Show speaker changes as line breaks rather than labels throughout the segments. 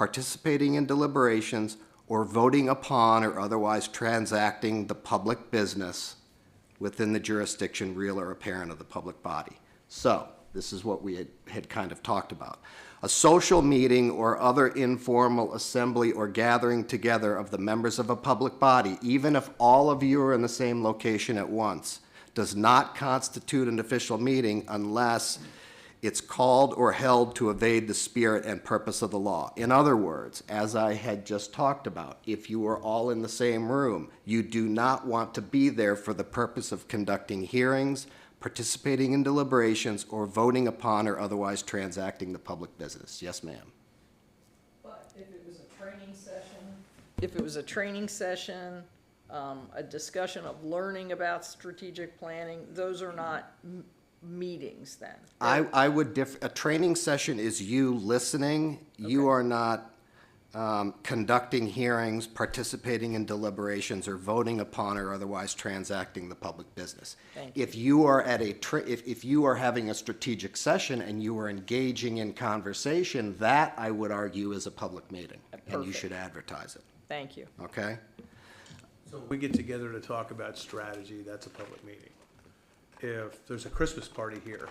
participating in deliberations, or voting upon or otherwise transacting the public business within the jurisdiction real or apparent of the public body. So, this is what we had, had kind of talked about. A social meeting or other informal assembly or gathering together of the members of a public body, even if all of you are in the same location at once, does not constitute an official meeting unless it's called or held to evade the spirit and purpose of the law. In other words, as I had just talked about, if you are all in the same room, you do not want to be there for the purpose of conducting hearings, participating in deliberations, or voting upon or otherwise transacting the public business. Yes, ma'am.
But if it was a training session? If it was a training session, um, a discussion of learning about strategic planning, those are not m- meetings then?
I, I would diff, a training session is you listening. You are not um, conducting hearings, participating in deliberations, or voting upon or otherwise transacting the public business.
Thank
If you are at a, tra- if, if you are having a strategic session and you are engaging in conversation, that, I would argue, is a public meeting. And you
Perfect.
should advertise it,
Thank you.
okay?
So if we get together to talk about strategy, that's a public meeting. If there's a Christmas party here,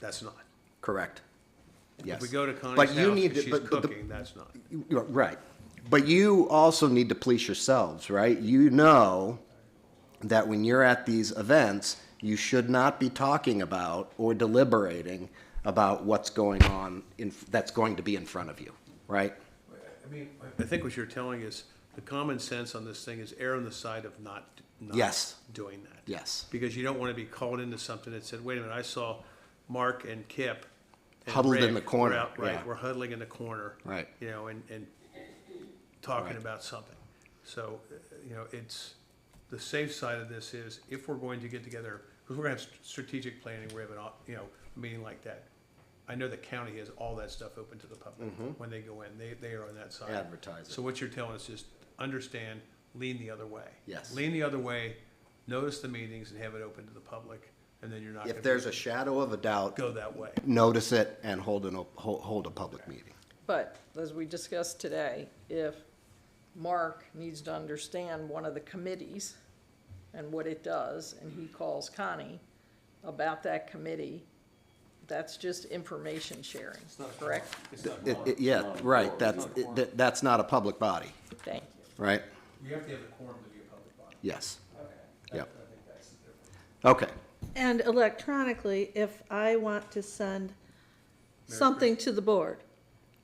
that's not.
Correct. Yes.
If we go to Connie's
But
house
you need
and
to-
she's
but- but the-
cooking, that's not.
You- you're Right. But you also need to police yourselves, right? You know that when you're at these events, you should not be talking about or deliberating about what's going on in, that's going to be in front of you, right?
I mean, I think what you're telling is, the common sense on this thing is err on the side of not, not
Yes.
doing that.
Yes.
Because you don't want to be called into something that said, wait a minute, I saw Mark and Kip. and
Huddled in
Rick
the corner,
were out,"
yeah.
Right, we're huddling in the corner.
Right.
You know, and, and talking
Right.
about something. So, uh, you know, it's, the safe side of this is, if we're going to get together, because we're going to have st- strategic planning, we're having, you know, a meeting like that. I know the county has all that stuff open to the public
Mm-hmm.
when they go in. They, they are on that side.
Advertise it.
So what you're telling us is, understand, lean the other way.
Yes.
Lean the other way, notice the meetings and have it open to the public, and then you're not.
If
gonna
there's
be-
a shadow of a doubt,
Go that way.
notice it and hold an, op- hold hold a public meeting.
But as we discussed today, if Mark needs to understand one of the committees and what it does, and he calls Connie about that committee, that's just information sharing, correct?
It's not
It-
quorum.
it- Yeah, right, that's, it- that- that's not a public body,
Thank you.
right?
You have to have a quorum to be a public body.
Yes,
Okay.
yeah,
I think that's the difference.
okay.
And electronically, if I want to send something to the board,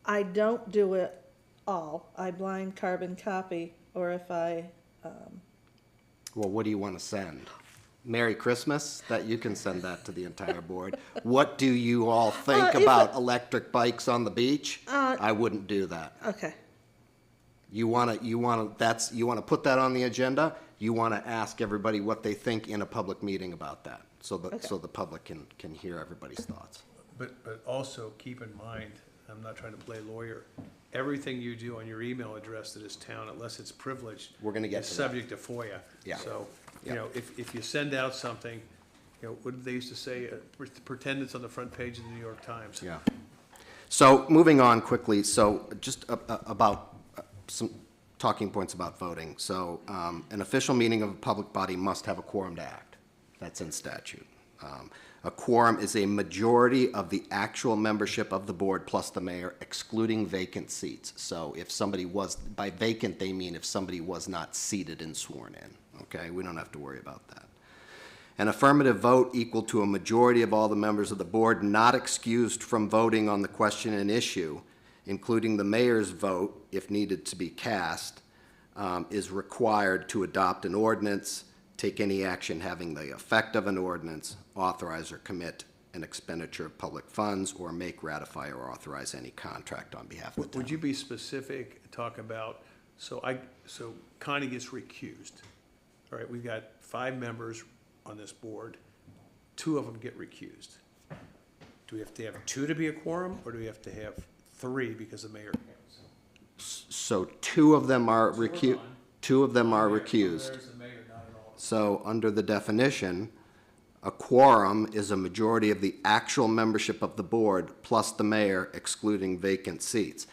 I don't do it all. I blind carbon copy, or if I,
Well, what do you want to send? Merry Christmas? That you can send that to the entire board. What do you all
Uh,
think
if
about
it-
electric bikes on the beach?
Uh,
I wouldn't do that.
okay,
You want to, you want to, that's, you want to put that on the agenda? You want to ask everybody what they think in a public meeting about that? So that, so the public can, can hear everybody's thoughts.
But, but also keep in mind, I'm not trying to play lawyer, everything you do on your email address that is town, unless it's privileged.
We're gonna get
Is
to that.
subject to FOIA.
Yeah.
So,
Yeah.
you know, if, if you send out something, you know, what did they used to say, Uh, pretend it's on the front page of the New York Times.
Yeah. So, moving on quickly, so just a- a- about uh, some talking points about voting. So, um, an official meeting of a public body must have a quorum to act. That's in statute. Um, A quorum is a majority of the actual membership of the board plus the mayor excluding vacant seats. So if somebody was, by vacant, they mean if somebody was not seated and sworn in, okay? We don't have to worry about that. An affirmative vote equal to a majority of all the members of the board not excused from voting on the question and issue, including the mayor's vote if needed to be cast, um, is required to adopt an ordinance, take any action having the effect of an ordinance, authorize or commit an expenditure of public funds, or make, ratify, or authorize any contract on behalf of the town.
Would you be specific, talk about, so I, so Connie gets recused. All right, we've got five members on this board, two of them get recused. Do we have to have two to be a quorum, or do we have to have three because the mayor?
So two of them are recu, two of them are recused.
There's the mayor, not at all.
So, under the definition, a quorum is a majority of the actual membership of the board plus the mayor excluding vacant seats.